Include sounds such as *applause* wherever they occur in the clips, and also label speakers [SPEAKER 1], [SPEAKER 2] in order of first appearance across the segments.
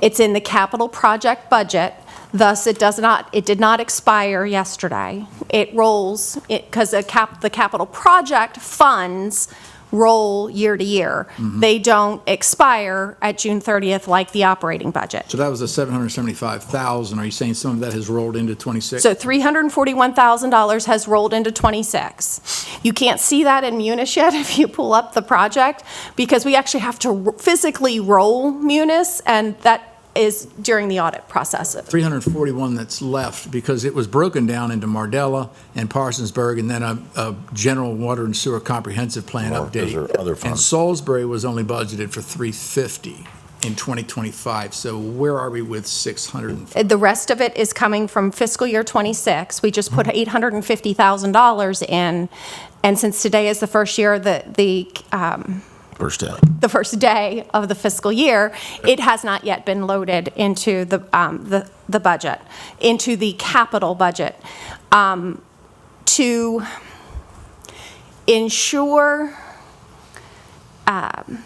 [SPEAKER 1] It's in the capital project budget, thus it does not, it did not expire yesterday. It rolls, because the cap, the capital project funds roll year to year. They don't expire at June 30th like the operating budget.
[SPEAKER 2] So that was the 775,000. Are you saying some of that has rolled into 26?
[SPEAKER 1] So $341,000 has rolled into '26. You can't see that in Munis yet *laughs* if you pull up the project, because we actually have to r- physically roll Munis, and that is during the audit process.
[SPEAKER 2] 341 that's left because it was broken down into Mardella and Parsonsburg and then a, a general water and sewer comprehensive plan
[SPEAKER 3] Or is
[SPEAKER 2] update.
[SPEAKER 3] there other
[SPEAKER 2] And
[SPEAKER 3] funds?
[SPEAKER 2] Salisbury was only budgeted for 350 in 2025. So where are we with 600?
[SPEAKER 1] The rest of it is coming from fiscal year '26. We just put $850,000 in, and since today is the first year that the, um,
[SPEAKER 3] First day.
[SPEAKER 1] the first day of the fiscal year, it has not yet been loaded into the, um, the, the budget, into the capital budget. Um, To ensure um,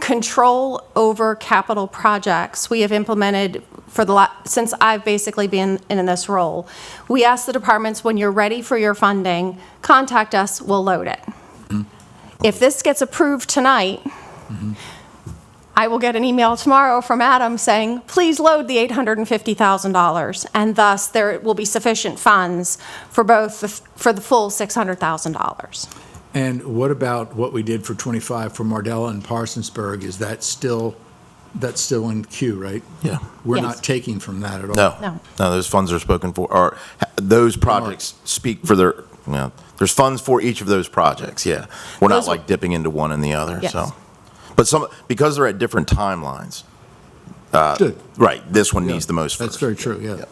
[SPEAKER 1] control over capital projects, we have implemented for the, la- since I've basically been in this role, we ask the departments, when you're ready for your funding, contact us, we'll load it if this gets approved tonight, I will get an email tomorrow from Adam saying, please load the $850,000, and thus there will be sufficient funds for both, the f- for the full $600,000.
[SPEAKER 2] And what about what we did for 25 for Mardella and Parsonsburg? Is that still, that's still in queue, right?
[SPEAKER 3] Yeah.
[SPEAKER 2] We're
[SPEAKER 1] Yes.
[SPEAKER 2] not taking from that at all?
[SPEAKER 3] No.
[SPEAKER 1] No.
[SPEAKER 3] those funds are spoken for, or ha- those projects speak for their, you know, there's funds for each of those projects, yeah. We're not
[SPEAKER 1] Those are-
[SPEAKER 3] like dipping into one and the other,
[SPEAKER 1] Yes.
[SPEAKER 3] so. But some, because they're at different timelines, uh,
[SPEAKER 2] Good.
[SPEAKER 3] right, this one needs the most
[SPEAKER 2] That's
[SPEAKER 3] first.
[SPEAKER 2] very true, yeah.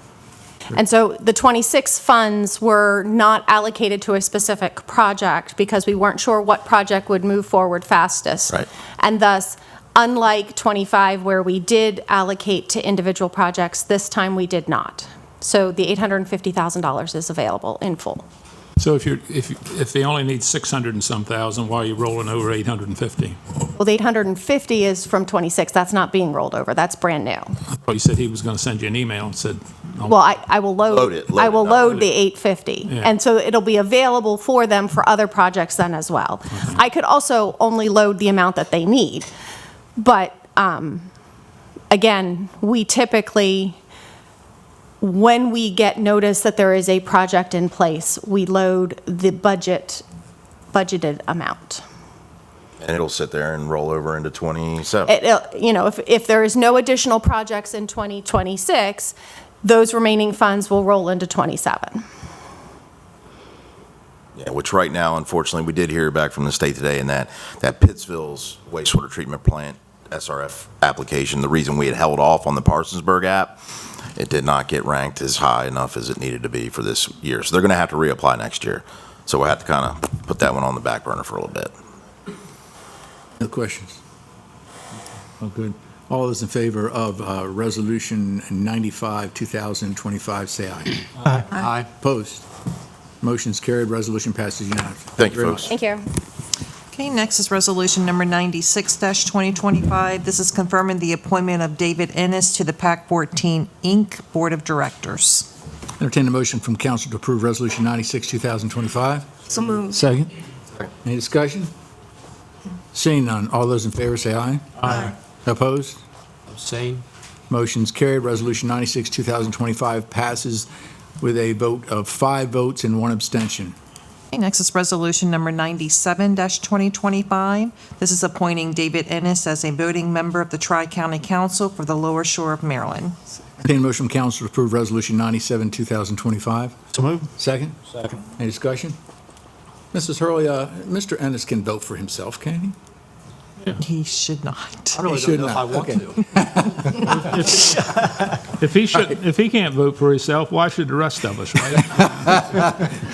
[SPEAKER 1] And so the 26 funds were not allocated to a specific project because we weren't sure what project would move forward fastest.
[SPEAKER 3] Right.
[SPEAKER 1] And thus, unlike 25, where we did allocate to individual projects, this time we did not. So the $850,000 is available in full.
[SPEAKER 4] So if you're, if, if they only need 600 and some thousand, why are you rolling over 850?
[SPEAKER 1] Well, the 850 is from 26, that's not being rolled over, that's brand new.
[SPEAKER 4] Well, you said he was going to send you an email and said, I'll-
[SPEAKER 1] Well, I, I will load.
[SPEAKER 3] Load it, load
[SPEAKER 1] I
[SPEAKER 3] it,
[SPEAKER 1] will
[SPEAKER 3] not
[SPEAKER 1] load
[SPEAKER 3] load
[SPEAKER 1] the 850.
[SPEAKER 4] Yeah.
[SPEAKER 1] And so it'll be available for them for other projects then as well. I could also only load the amount that they need. But um, again, we typically, when we get notice that there is a project in place, we load the budget, budgeted amount.
[SPEAKER 3] And it'll sit there and roll over into 27.
[SPEAKER 1] It- it'll- You know, if, if there is no additional projects in 2026, those remaining funds will roll into '27.
[SPEAKER 3] Yeah, Which right now, unfortunately, we did hear back from the state today in that, that Pittsville's wastewater treatment plant SRF application, the reason we had held off on the Parsonsburg app, it did not get ranked as high enough as it needed to be for this year. So they're going to have to reapply next year. So we'll have to kind of put that one on the back burner for a little bit.
[SPEAKER 2] No questions? All good. All those in favor of uh, Resolution 95, 2025, say aye. Aye. Aye. Opposed? Motion's carried, resolution passes unanimously.
[SPEAKER 3] Thank you,
[SPEAKER 2] very
[SPEAKER 3] folks.
[SPEAKER 2] much.
[SPEAKER 1] Thank you.
[SPEAKER 5] Okay, next is Resolution Number 96-2025. This is confirming the appointment of David Ennis to the PAC-14 Inc. Board of Directors.
[SPEAKER 2] Entertain a motion from council to approve Resolution 96, 2025.
[SPEAKER 6] So moved.
[SPEAKER 2] Second. Any discussion? Seeing none, all those in favor say aye. Aye. Opposed?
[SPEAKER 7] Abstain.
[SPEAKER 2] Motion's carried. Resolution 96, 2025 passes with a vote of five votes and one abstention.
[SPEAKER 5] Okay, next is Resolution Number 97-2025. This is appointing David Ennis as a voting member of the Tri-County Council for the Lower Shore of Maryland.
[SPEAKER 2] Entertain a motion from council to approve Resolution 97, 2025.
[SPEAKER 7] So moved.
[SPEAKER 2] Second?
[SPEAKER 7] Second.
[SPEAKER 2] Any discussion? Mrs. Hurley, uh, Mr. Ennis can vote for himself, can he?
[SPEAKER 5] He should not.
[SPEAKER 7] I really
[SPEAKER 2] should
[SPEAKER 7] don't know if
[SPEAKER 2] not.
[SPEAKER 7] I want
[SPEAKER 2] Okay.
[SPEAKER 7] to.
[SPEAKER 4] if he *laughs* should, if he can't vote for himself, why should the rest of us, right?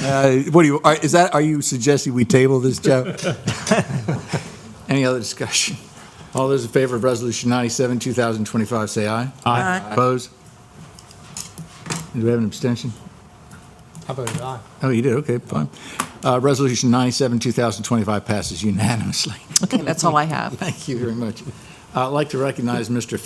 [SPEAKER 2] Uh, What do you, are- is that, are you suggesting we table this, Joe? *laughs* Any other discussion? All those in favor of Resolution 97, 2025, say aye.
[SPEAKER 4] Aye.
[SPEAKER 2] Opposed? Do we have an abstention?
[SPEAKER 7] I voted aye.
[SPEAKER 2] Oh, you did, okay, fine. Uh, Resolution 97, 2025 passes unanimously. *laughs*
[SPEAKER 5] Okay, that's all I have. *laughs*
[SPEAKER 2] Thank you very much. Uh, I'd like to recognize Mr.